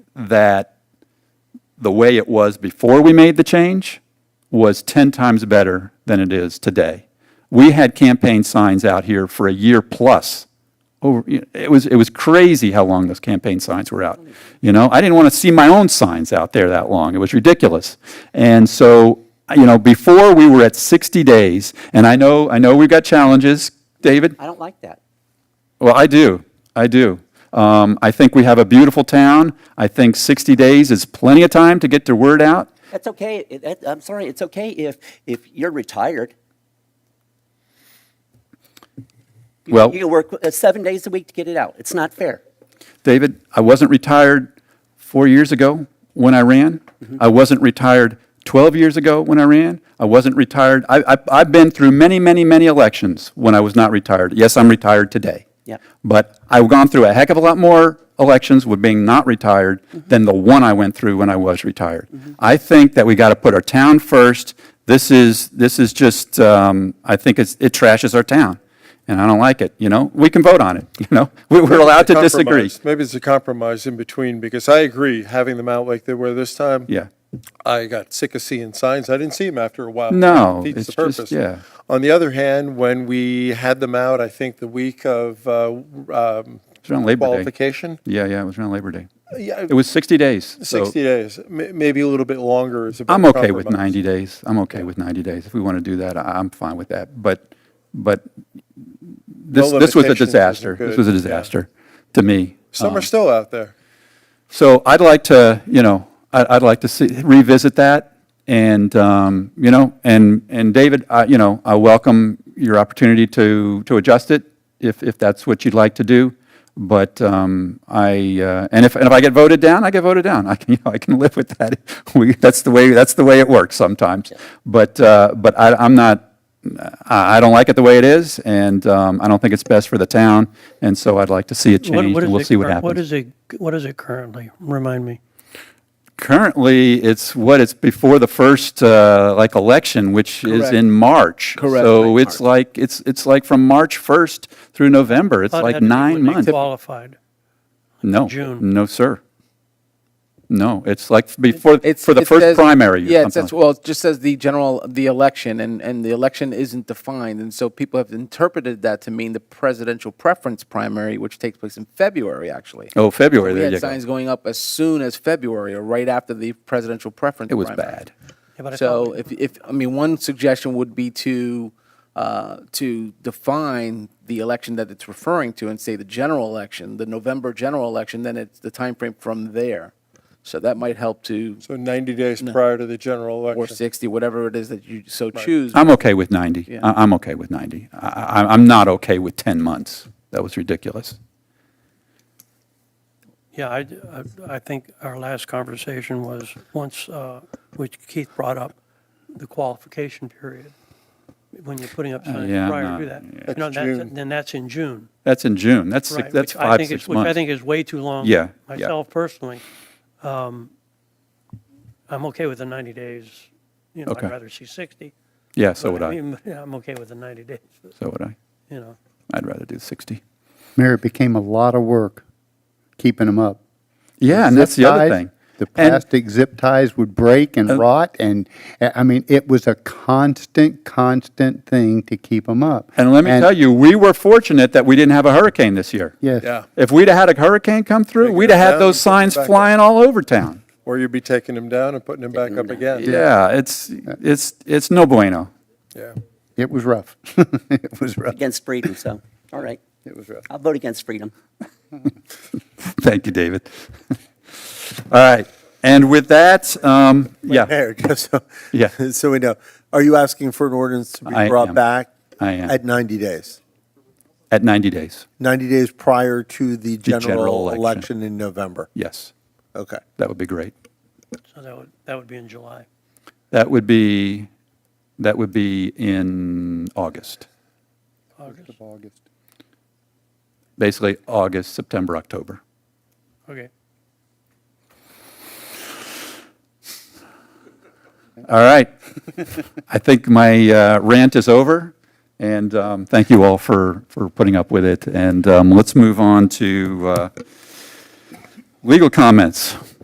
that the way it was before we made the change was 10 times better than it is today. We had campaign signs out here for a year plus. Over, it was, it was crazy how long those campaign signs were out. You know, I didn't want to see my own signs out there that long. It was ridiculous. And so, you know, before we were at 60 days, and I know, I know we've got challenges, David. I don't like that. Well, I do. I do. Um, I think we have a beautiful town. I think 60 days is plenty of time to get the word out. That's okay. It- that- I'm sorry. It's okay if, if you're retired. You- Oh. Well- You can work uh, seven days a week to get it out. It's not fair. David, I wasn't retired four years ago when I ran. I wasn't retired 12 years ago when I ran. I wasn't retired. I, I, I've been through many, many, many elections when I was not retired. Yes, I'm retired today. Yep. But I've gone through a heck of a lot more elections with being not retired than the one I went through when I was retired. I think that we got to put our town first. This is, this is just, um, I think it's, it trashes our town. And I don't like it, you know? We can vote on it, you know? We- We're allowed to disagree. Compromise. Maybe it's a compromise in between, because I agree, having them out like they were this time. Yeah. I got sick of seeing signs. I didn't see them after a while. No, Defeats the it's just- purpose. yeah. On the other hand, when we had them out, I think the week of uh, um, around Labor Day. qualification, Yeah, yeah, it was around Labor Day. Uh, yeah, It was 60 days. so 60 days, m- maybe a little bit longer is a better I'm okay with compromise. 90 days. I'm okay with 90 days. If we want to do that, I- I'm fine with that. But, but this, this was a limitations isn't disaster. This good, was a yeah. disaster to me. Some are still out there. So I'd like to, you know, I- I'd like to see, revisit that, and, um, you know, and, and David, I- you know, I welcome your opportunity to, to adjust it, if, if that's what you'd like to do, but um, I, uh, and if, and if I get voted down, I get voted down, I can, you know, I can live with that. We, that's the way, that's the way it works sometimes, but, uh, but I, I'm not, I, I don't like it the way it is, and um, I don't think it's best for the town, and so I'd like to see it What- changed, what and is we'll it see what cur- happens. What is it, what is it currently? Remind me. Currently, it's what, it's before the first, uh, like, election, which is Correct. in March. Correct. So it's like, it's, it's like from March 1st through November, it's Thought it had like to be nine when they months. Qualified. No, June. no, sir. No, it's like before, It's for the it says- first primary. or Yeah, it something like- says, well, it just says the general, the election, and, and the election isn't defined, and so people have interpreted that to mean the presidential preference primary, which takes place in February, actually. Oh, February, We there you had go. signs going up as soon as February, or right after the presidential preference. It was primary. bad. Yeah, but I thought So if, if, I mean, one suggestion would be to, uh, to define the election that it's referring to and say the general election, the November general election, then it's the timeframe from there. So that might help to, So 90 days prior to the general or election. 60, whatever it is that you so choose. I'm okay with 90. I- I'm okay with 90. I- I- I'm not okay with 10 months. That was ridiculous. Yeah, I, I- I think our last conversation was once, uh, which Keith brought up, the qualification period, when you're putting up signs Uh, yeah, I'm prior not- to that. You That's know, June. Then that's in June, That's in June. That's, six- right? that's which I five, think six is- months. Which I think is way too long. Yeah, yeah. Myself personally, um, I'm okay with the 90 days. You know, Okay. I'd rather see 60. Yeah, so but would I. mean, I'm okay with the 90 days, So would I. you know. I'd rather do 60. Mayor, it became a lot of work keeping them up. Yeah, and Zip that's the other ties, thing. The And- plastic zip ties would break and rot, and uh, I mean, it was a constant, constant thing to keep them up. And let me tell you, we were fortunate that we didn't have a hurricane this year. Yes. Yeah, If we'd have had a hurricane come through, Take we'd it have had down those and put it signs back up. flying all over town. or you'd be taking them down and putting them back up again. Yeah, it's, it's, it's no bueno. Yeah. It was rough. It was rough. Against freedom, so, all right. It was rough. I'll vote against freedom. Thank you, David. All right, and with that, um, yeah, Mayor, just so, Yeah. so we know, are you asking for an ordinance to be I brought am. back? I am. At 90 days? at 90 days, 90 days prior to the general general election. election in November? yes, Okay. that would be great. So Oh, that would, that would be in July. That would be, that would be in August, August, basically August, September, October. okay. All right. I think my uh, rant is over, and um, thank you all for, for putting up with it. And um, let's move on to uh, legal comments.